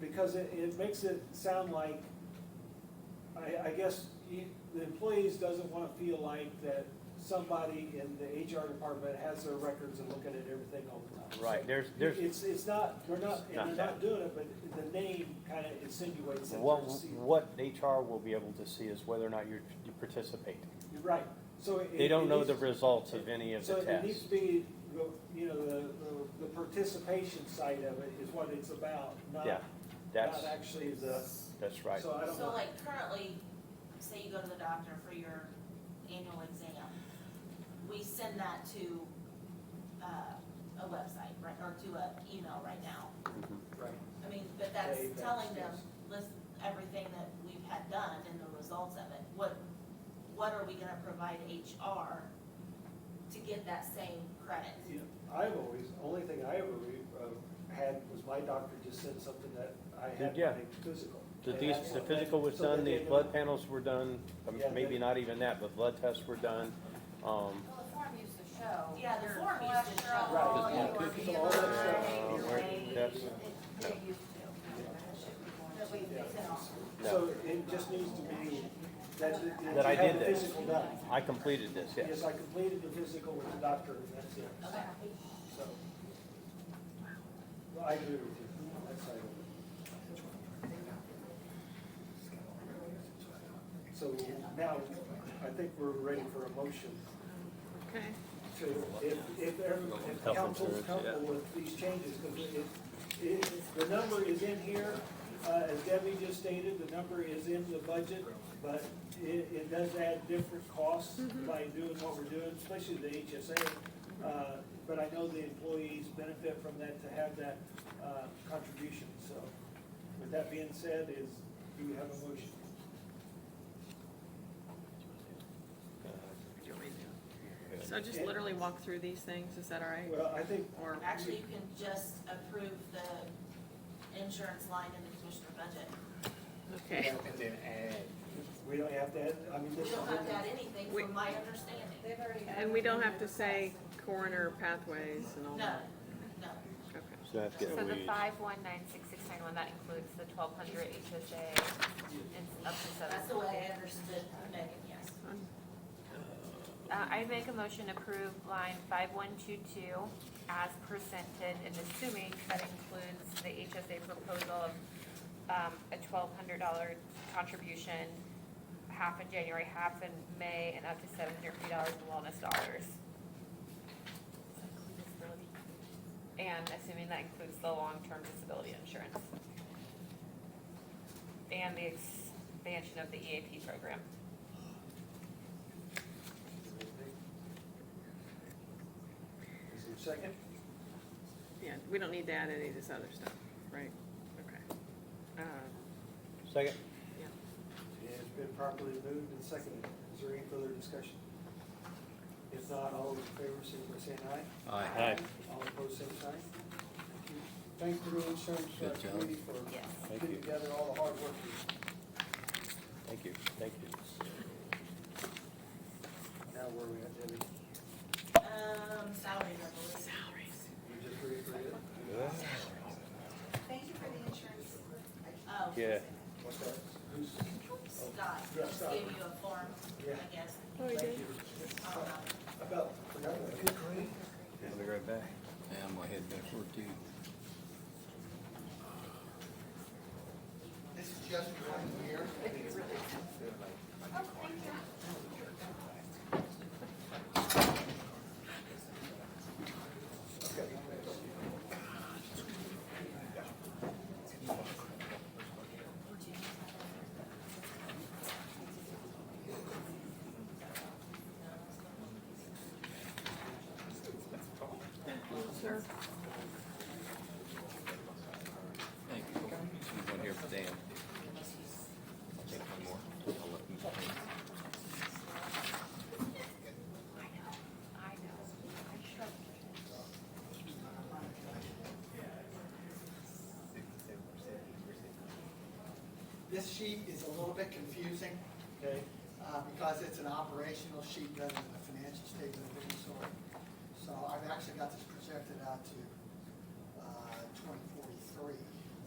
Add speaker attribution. Speaker 1: because it, it makes it sound like, I, I guess, you, the employees doesn't wanna feel like that somebody in the HR department has their records and looking at everything all the time.
Speaker 2: Right, there's, there's,
Speaker 1: It's, it's not, we're not,
Speaker 2: Not
Speaker 1: and they're
Speaker 2: that.
Speaker 1: not doing it, but the name kinda insinuates that
Speaker 2: what,
Speaker 1: they're seeing.
Speaker 2: what HR will be able to see is whether or not you're, you participate.
Speaker 1: You're Right, so. it-
Speaker 2: They don't
Speaker 1: it
Speaker 2: know the
Speaker 1: needs-
Speaker 2: results of any of the
Speaker 1: So it needs
Speaker 2: tests.
Speaker 1: to be, the- you know, the, the- the participation side of it is what it's about, not,
Speaker 2: Yeah, that's,
Speaker 1: not actually the,
Speaker 2: that's right.
Speaker 1: so I don't
Speaker 3: So
Speaker 1: know.
Speaker 3: like currently, say you go to the doctor for your annual exam, we send that to, uh, a website, right, or to a email right now.
Speaker 2: Mhm.
Speaker 1: Right.
Speaker 3: I mean, but that's
Speaker 1: Yeah, that's-
Speaker 3: telling them,
Speaker 1: yes.
Speaker 3: list everything that we've had done and the results of it. What, what are we gonna provide HR to get that same credit?
Speaker 1: You know, I've always, only thing I ever re- uh, had was my doctor just said something that I had
Speaker 2: Yeah.
Speaker 1: my physical.
Speaker 2: The,
Speaker 1: And
Speaker 2: these,
Speaker 1: that's
Speaker 2: the
Speaker 1: what-
Speaker 2: physical was
Speaker 1: so that
Speaker 2: done,
Speaker 1: they
Speaker 2: these
Speaker 1: know-
Speaker 2: blood panels were done, um,
Speaker 1: Yeah,
Speaker 2: maybe
Speaker 1: they-
Speaker 2: not even that, but blood tests were done. Um,
Speaker 4: Well, the form used to show.
Speaker 3: Yeah, the
Speaker 4: your
Speaker 3: form used to show.
Speaker 4: cholesterol,
Speaker 1: Right.
Speaker 4: your
Speaker 1: Yeah. All that stuff.
Speaker 4: BMI, your
Speaker 2: Uh,
Speaker 4: weight.
Speaker 2: that's-
Speaker 4: It- It used to. That should be more.
Speaker 3: That we fix it all.
Speaker 1: So it just needs to be that.
Speaker 2: That I
Speaker 1: you have
Speaker 2: did
Speaker 1: the
Speaker 2: this.
Speaker 1: Physical done.
Speaker 2: I completed this, yes.
Speaker 1: Yes, I completed the physical with the doctor and that's it,
Speaker 3: Okay,
Speaker 1: so. Well, I agree with you. That's how I would- So now, I think we're ready for a motion.
Speaker 5: Okay.
Speaker 1: to, if, if, every- if the
Speaker 2: Health
Speaker 1: council's
Speaker 2: insurance, yeah.
Speaker 1: comfortable with these changes, because it, it, the number is in here, uh, as Debbie just stated, the number is in the budget, but it, it does add different costs by doing what we're doing, especially the HSA. Uh, but I know the employees benefit from that to have that, uh, contribution, so with that being said, is, do we have a motion?
Speaker 5: So just literally walk through these things, is that all right?
Speaker 1: Well, I think,
Speaker 5: Or,
Speaker 3: actually, you can just approve the insurance line in the commissioner budget.
Speaker 5: okay,
Speaker 1: we don't have to add, I mean,
Speaker 3: We
Speaker 1: this is.
Speaker 3: don't have to add anything
Speaker 5: We-
Speaker 3: from my understanding.
Speaker 4: They've already.
Speaker 5: and we don't have to say coroner pathways and all
Speaker 3: No,
Speaker 5: that?
Speaker 3: no.
Speaker 5: Okay.
Speaker 2: So that's
Speaker 6: So
Speaker 2: getting
Speaker 6: the
Speaker 2: weeds.
Speaker 6: five one nine six six nine one, that includes the twelve hundred HSA, it's up to seven.
Speaker 3: That's the way I understood Megan, yes.
Speaker 6: Uh, I make a motion to approve line five one two two as presented and assuming that includes the HSA proposal of, um, a twelve hundred dollar contribution, half in January, half in May, and up to seven hundred fifty dollars in wellness dollars. Does that include disability? And assuming that includes the long-term disability insurance. And the expansion of the EAP program.
Speaker 1: Is there a second?
Speaker 5: Yeah, we don't need to add any of this other stuff, right? Okay. Um,
Speaker 2: Second?
Speaker 1: It's been properly moved and seconded. Is there any further discussion? If not, all those in favor, signify by saying aye.
Speaker 2: Aye.
Speaker 1: All opposed, same sign. Thank you. Thank you, Rural Insurance uh,
Speaker 7: Good job.
Speaker 1: Committee, for
Speaker 6: Yes.
Speaker 2: Thank
Speaker 1: putting
Speaker 2: you.
Speaker 1: together all the hard work. you
Speaker 2: Thank you, thank you.
Speaker 1: did. Now, where are we at, Debbie?
Speaker 3: Um, salary, I believe.
Speaker 1: You just reiterated?
Speaker 4: Thank you for the insurance.
Speaker 3: Oh,
Speaker 2: Yeah.
Speaker 1: What's that? Who's?
Speaker 3: Scott,
Speaker 1: Yeah,
Speaker 3: just
Speaker 1: Scott.
Speaker 3: gave you a form,
Speaker 1: Yeah.
Speaker 3: I guess.
Speaker 5: Oh, we
Speaker 1: Thank
Speaker 5: did?
Speaker 1: you.
Speaker 3: I don't know.
Speaker 1: I About, forgot that. Good grade.
Speaker 2: I'll be right back.
Speaker 7: Yeah, I'm gonna head back for it too.
Speaker 8: This is just one year.
Speaker 7: Thank you. She's on here for Dan. I'll take one more. I'll let you take it.
Speaker 6: I know, I sure.
Speaker 8: This sheet is a little bit confusing
Speaker 1: Okay,
Speaker 8: uh, because it's an operational sheet rather than a financial statement of any sort. So I've actually got this projected out to uh, 2043.